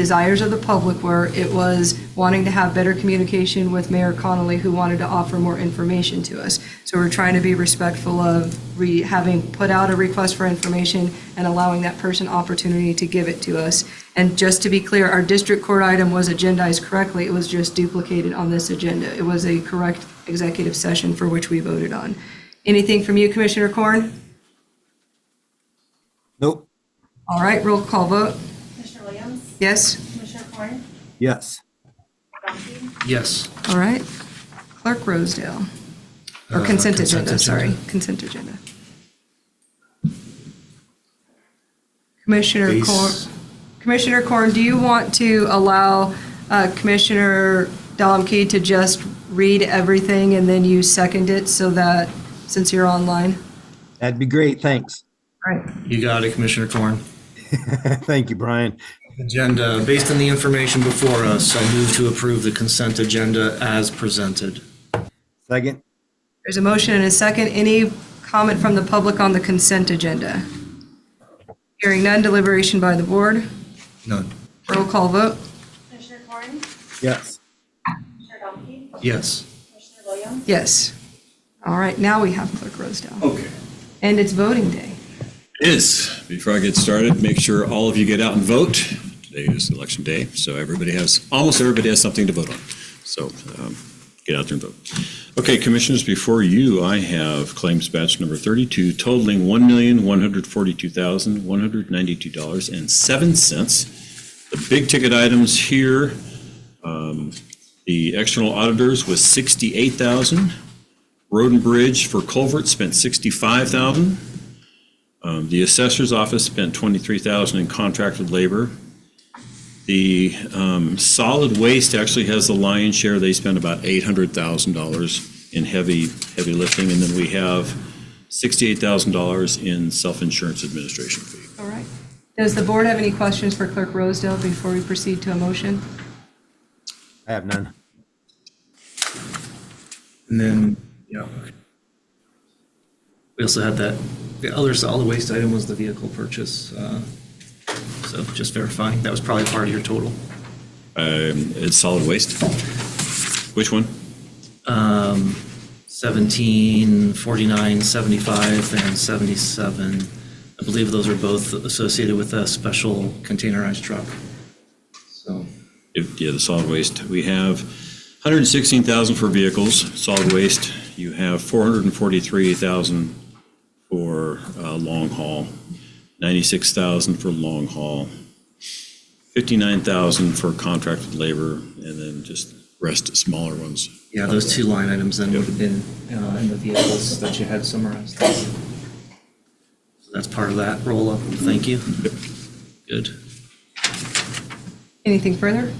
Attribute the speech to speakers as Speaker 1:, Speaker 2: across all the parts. Speaker 1: desires of the public were, it was wanting to have better communication with Mayor Connolly, who wanted to offer more information to us. So we're trying to be respectful of re, having put out a request for information and allowing that person opportunity to give it to us. And just to be clear, our district court item was agendized correctly, it was just duplicated on this agenda. It was a correct executive session for which we voted on. Anything from you, Commissioner Corn?
Speaker 2: Nope.
Speaker 1: All right, roll call vote.
Speaker 3: Commissioner Williams?
Speaker 1: Yes?
Speaker 3: Commissioner Corn?
Speaker 2: Yes.
Speaker 3: Gumpy?
Speaker 4: Yes.
Speaker 1: All right. Clerk Rosedale. Or
Speaker 4: Uh,
Speaker 1: consent
Speaker 4: consent
Speaker 1: agenda, sorry,
Speaker 4: agenda.
Speaker 1: consent agenda. Commissioner Corn,
Speaker 4: Base-
Speaker 1: Commissioner Corn, do you want to allow uh, Commissioner Domke to just read everything and then you second it so that, since you're online?
Speaker 2: That'd be great. Thanks.
Speaker 1: All right.
Speaker 4: You got it, Commissioner Corn.
Speaker 2: Thank you, Brian.
Speaker 4: Agenda, based on the information before us, I move to approve the consent agenda as presented.
Speaker 2: Second?
Speaker 1: There's a motion and a second. Any comment from the public on the consent agenda? Hearing none, deliberation by the board.
Speaker 4: None.
Speaker 1: Roll call vote.
Speaker 3: Commissioner Corn?
Speaker 2: Yes.
Speaker 3: Commissioner Gumpy?
Speaker 4: Yes.
Speaker 3: Commissioner Williams?
Speaker 1: Yes. All right, now we have Clerk Rosedale.
Speaker 5: Okay.
Speaker 1: And it's voting day.
Speaker 5: Is, before I get started, make sure all of you get out and vote. Today is election day, so everybody has, almost everybody has something to vote on. So um, get out there and vote. Okay, commissioners, before you, I have claims batch number 32 totaling $1,142,192.07. The big ticket items here, um, the external auditors was 68,000. Road and Bridge for culvert spent 65,000. Um, The assessor's office spent 23,000 in contracted labor. The um, solid waste actually has the lion's share. They spent about $800,000 in heavy, heavy lifting. And then we have $68,000 in self-insurance administration fee.
Speaker 1: All right. Does the board have any questions for Clerk Rosedale before we proceed to a motion?
Speaker 2: I have none.
Speaker 4: And then, yeah. We also had that, the other solid waste item was the vehicle purchase. uh, So just verifying, that was probably part of your total.
Speaker 5: Um, It's solid waste? Which one?
Speaker 4: 17, 49, 75, and 77. I believe those are both associated with a special containerized truck. So,
Speaker 5: If- Yeah, the solid waste. We have 116,000 for vehicles, solid waste. You have 443,000 for uh, long haul, 96,000 for long haul, 59,000 for contracted labor, and then just rest smaller ones.
Speaker 4: yeah, those two line items then would have been uh, in the vehicles that you had summarized. So That's part of that roll-up. Thank you. Good.
Speaker 1: Anything further?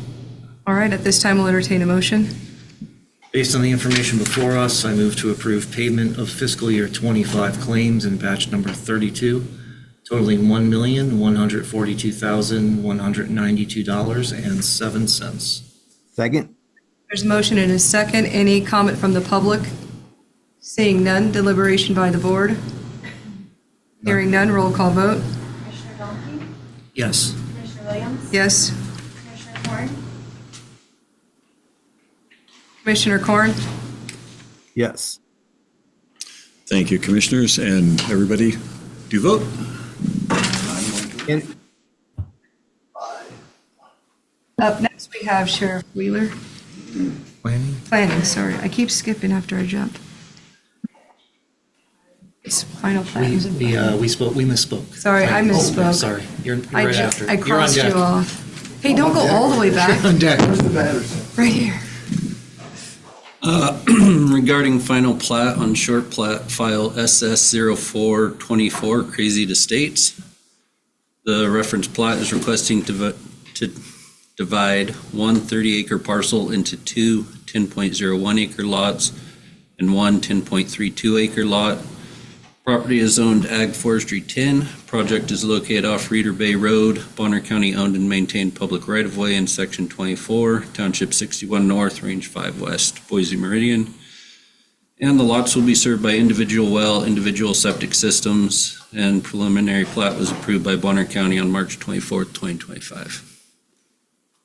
Speaker 1: All right, at this time, we'll entertain a motion.
Speaker 4: Based on the information before us, I move to approve payment of fiscal year 25 claims in batch number 32 totaling $1,142,192.07.
Speaker 2: Second?
Speaker 1: There's a motion and a second. Any comment from the public? Seeing none, deliberation by the board. Hearing none, roll call vote.
Speaker 3: Commissioner Gumpy?
Speaker 4: Yes.
Speaker 3: Commissioner Williams?
Speaker 1: Yes.
Speaker 3: Commissioner Corn?
Speaker 1: Commissioner Corn?
Speaker 2: Yes.
Speaker 5: Thank you, commissioners, and everybody, do vote.
Speaker 2: And
Speaker 1: Up next, we have Sheriff Wheeler.
Speaker 4: Planning?
Speaker 1: Planning, sorry. I keep skipping after I jump. It's final
Speaker 4: We,
Speaker 1: plans.
Speaker 4: we, uh, we spoke, we misspoke.
Speaker 1: Sorry, I
Speaker 4: Oh,
Speaker 1: misspoke.
Speaker 4: Sorry, you're you're
Speaker 1: I
Speaker 4: right
Speaker 1: ju-
Speaker 4: after.
Speaker 1: I
Speaker 4: You're on
Speaker 1: crossed you
Speaker 4: deck.
Speaker 1: off. Hey, don't go all the way back,
Speaker 4: On deck.
Speaker 1: right here.
Speaker 6: Regarding final plat on short plat file SS 0424, Crazy to States. The reference plat is requesting to vo- to divide one 30-acre parcel into two 10.01-acre lots and one 10.32-acre lot. Property is zoned Ag Forestry 10. Project is located off Reeder Bay Road, Bonner County owned and maintained public right-of-way in Section 24, Township 61 North, Range 5 West, Boise Meridian. And the lots will be served by individual well, individual septic systems, and preliminary plat was approved by Bonner County on March 24th, 2025.